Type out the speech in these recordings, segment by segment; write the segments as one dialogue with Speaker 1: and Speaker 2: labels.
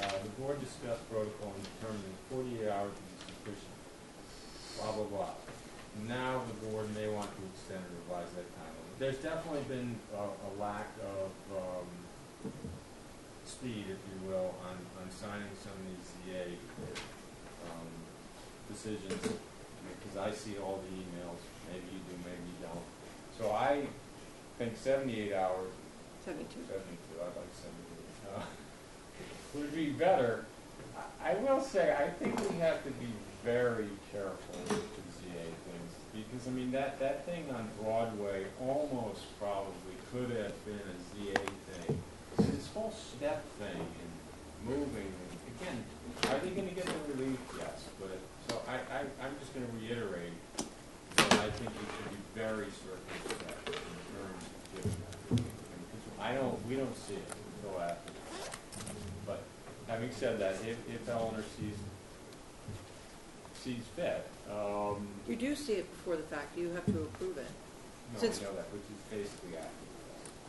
Speaker 1: Uh, the board discussed protocol and determined that forty-eight hours would be sufficient, blah, blah, blah. Now the board may want to extend or revise that timeline. There's definitely been a, a lack of, um, speed, if you will, on, on signing some of these ZA, um, decisions. Because I see all the emails, maybe you do, maybe you don't. So I think seventy-eight hours
Speaker 2: Seventy-two.
Speaker 1: Seventy-two, I'd like seventy-two. Uh, Would be better. I- I will say, I think we have to be very careful with the ZA things, because, I mean, that, that thing on Broadway almost probably could have been a ZA thing. This whole step thing and moving, and again, are they gonna get the relief? Yes, but, so I, I, I'm just gonna reiterate, that I think we should be very circumspect in terms of giving that relief. Because I don't, we don't see it until after. But having said that, if, if Eleanor sees, sees fit, um,
Speaker 2: You do see it before the fact, you have to approve it.
Speaker 1: no, we
Speaker 2: Since-
Speaker 1: know that, which is basically after.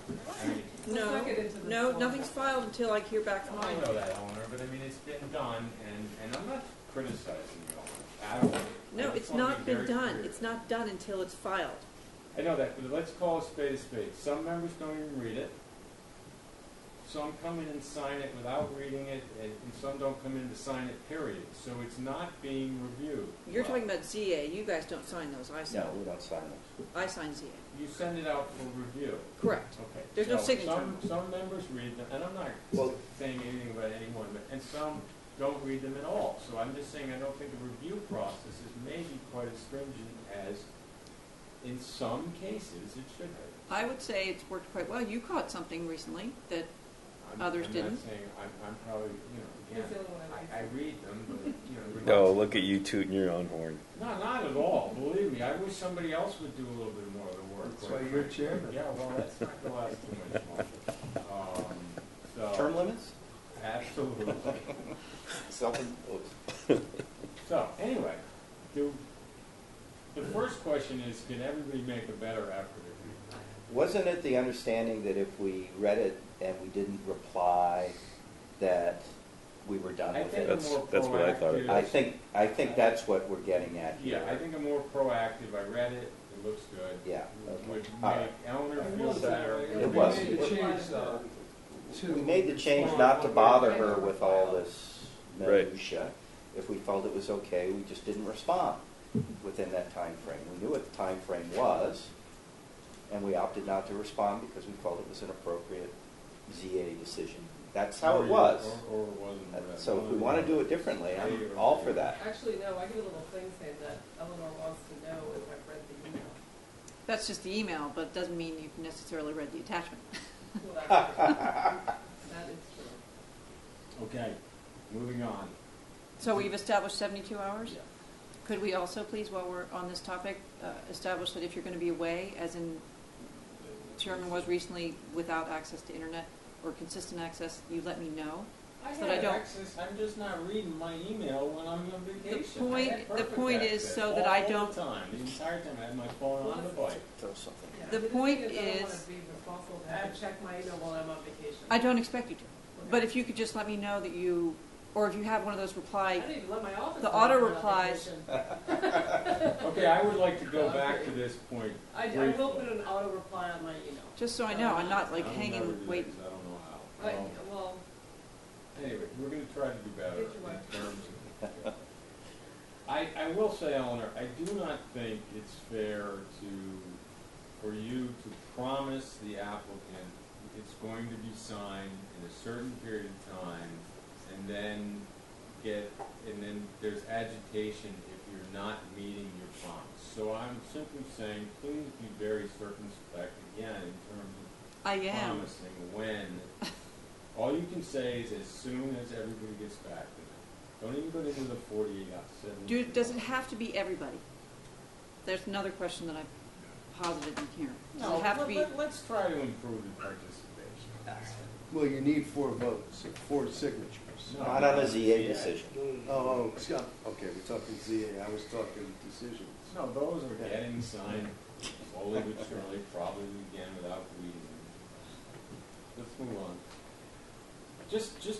Speaker 1: the fact. I mean,
Speaker 2: No,
Speaker 3: Let's not get into this
Speaker 2: No,
Speaker 3: long.
Speaker 2: nothing's filed until I hear back from
Speaker 1: I know
Speaker 2: Ida.
Speaker 1: that, Eleanor, but I mean, it's been done, and, and I'm not criticizing you, Eleanor, at all. I
Speaker 2: No,
Speaker 1: just
Speaker 2: it's
Speaker 1: wanna
Speaker 2: not
Speaker 1: be
Speaker 2: been
Speaker 1: very
Speaker 2: done,
Speaker 1: clear.
Speaker 2: it's not done until it's filed.
Speaker 1: I know that, but let's call a spade a spade. Some members don't even read it. Some come in and sign it without reading it, and, and some don't come in to sign it, period. So it's not being reviewed.
Speaker 2: You're talking about ZA, you guys don't sign those, I sign,
Speaker 4: No, we don't sign those.
Speaker 2: I sign ZA.
Speaker 1: You send it out for review.
Speaker 2: Correct.
Speaker 1: Okay.
Speaker 2: There's no
Speaker 1: So
Speaker 2: signature.
Speaker 1: Some, some members read them, and I'm not
Speaker 4: Well-
Speaker 1: saying anything about anyone, but, and some don't read them at all. So I'm just saying I don't think the review process is maybe quite as stringent as, in some cases, it should be.
Speaker 2: I would say it's worked quite well, you caught something recently that,
Speaker 1: I'm-
Speaker 2: Others
Speaker 1: I'm
Speaker 2: didn't.
Speaker 1: not saying, I'm, I'm probably, you know,
Speaker 3: He's the
Speaker 1: again,
Speaker 3: only one
Speaker 1: I, I read them, but, you know. we're
Speaker 5: No,
Speaker 1: not-
Speaker 5: look at you tooting your own horn.
Speaker 1: No, not at all, believe me, I wish somebody else would do a little bit more of the work.
Speaker 4: That's
Speaker 1: quite
Speaker 4: why you're
Speaker 1: frankly.
Speaker 4: chairman.
Speaker 1: Yeah, well, that's not gonna last too much longer. Um, so-
Speaker 4: Term limits?
Speaker 1: Absolutely.
Speaker 4: Self,
Speaker 1: So, anyway, do, the first question is, can everybody make a better effort if we
Speaker 4: wasn't it the understanding that if we read it and we didn't reply, that we were done
Speaker 1: I
Speaker 4: with
Speaker 1: think
Speaker 4: it?
Speaker 1: a
Speaker 5: That's-
Speaker 1: more
Speaker 5: that's what I thought.
Speaker 1: proactive.
Speaker 4: I think, I think that's what we're getting at here.
Speaker 1: Yeah, I think I'm more proactive, I read it, it looks good.
Speaker 4: Yeah,
Speaker 1: Would
Speaker 4: okay. All
Speaker 1: make
Speaker 4: right.
Speaker 1: Eleanor
Speaker 6: It
Speaker 1: feel
Speaker 6: was
Speaker 1: better.
Speaker 6: that way.
Speaker 4: It was.
Speaker 6: We made the change, though, to.
Speaker 4: We made the change not to bother her with all this
Speaker 5: Right.
Speaker 4: minutia. If we felt it was okay, we just didn't respond within that time frame. We knew what the time frame was, and we opted not to respond because we felt it was an appropriate ZA decision. That's how
Speaker 1: Or
Speaker 4: it
Speaker 1: you-
Speaker 4: was.
Speaker 1: Or, or it wasn't.
Speaker 4: That-
Speaker 1: read.
Speaker 4: So if we want to do it differently, I'm all for that.
Speaker 3: Actually, no, I get a little thing saying that Eleanor wants to know if I've read the email.
Speaker 2: that's just the email, but it doesn't mean you've necessarily read the attachment.
Speaker 3: Well, that's true. That is true.
Speaker 1: Okay, moving on.
Speaker 2: So we've established seventy-two hours?
Speaker 1: Yeah.
Speaker 2: Could we also, please, while we're on this topic, uh, establish that if you're going to be away, as in Sherman was recently without access to internet or consistent access, you let me know?
Speaker 1: I
Speaker 2: So that I
Speaker 1: had
Speaker 2: don't-
Speaker 1: access, I'm just not reading my email when I'm on
Speaker 2: The
Speaker 1: vacation. I had
Speaker 2: point, the
Speaker 1: perfect
Speaker 2: point is
Speaker 1: access
Speaker 2: so that I
Speaker 1: All
Speaker 2: don't,
Speaker 1: the time, the entire time I had my phone on the bike.
Speaker 4: Throw something.
Speaker 3: Yeah,
Speaker 2: The
Speaker 3: but
Speaker 2: point
Speaker 3: thing I don't want
Speaker 2: is-
Speaker 3: to be responsible to have to check my email while I'm on vacation.
Speaker 2: I don't expect you to.
Speaker 3: Okay.
Speaker 2: But if you could just let me know that you, or if you have one of those
Speaker 3: I
Speaker 2: reply,
Speaker 3: didn't even let my office.
Speaker 2: the
Speaker 3: know I was
Speaker 2: auto
Speaker 3: on
Speaker 2: replies-
Speaker 3: vacation.
Speaker 1: Okay, I would like to go back to this point.
Speaker 3: I, I will put an auto reply on my email.
Speaker 2: just so I know, I'm not like
Speaker 1: I will never do
Speaker 2: hanging,
Speaker 1: this,
Speaker 2: waiting.
Speaker 1: I don't know how.
Speaker 3: But,
Speaker 4: Oh.
Speaker 1: Um,
Speaker 3: well,
Speaker 1: Anyway, we're gonna try to do better
Speaker 3: Get your
Speaker 1: in terms of. I, I will say, Eleanor, I do not think it's fair to, for you to promise the applicant it's going to be signed in a certain period of time, and then get, and then there's agitation if you're not meeting your promise. So I'm simply saying, please be very circumspect, again, in terms of
Speaker 2: I am.
Speaker 1: promising when. All you can say is as soon as everybody gets back to them. Don't even go into the forty-eight hours.
Speaker 2: Do, does it have to be everybody? There's another question that I posited in here. Does
Speaker 1: No,
Speaker 2: it have to
Speaker 1: let,
Speaker 2: be?
Speaker 1: let, let's try to improve the participation.
Speaker 6: Well, you need four votes, four signatures.
Speaker 1: No.
Speaker 4: Not on a ZA decision.
Speaker 6: Oh, Oh, Scott, okay, we're talking ZA, I was talking decisions.
Speaker 1: No, those are getting signed slowly but surely, probably again without reading. them. Let's move on. Just, just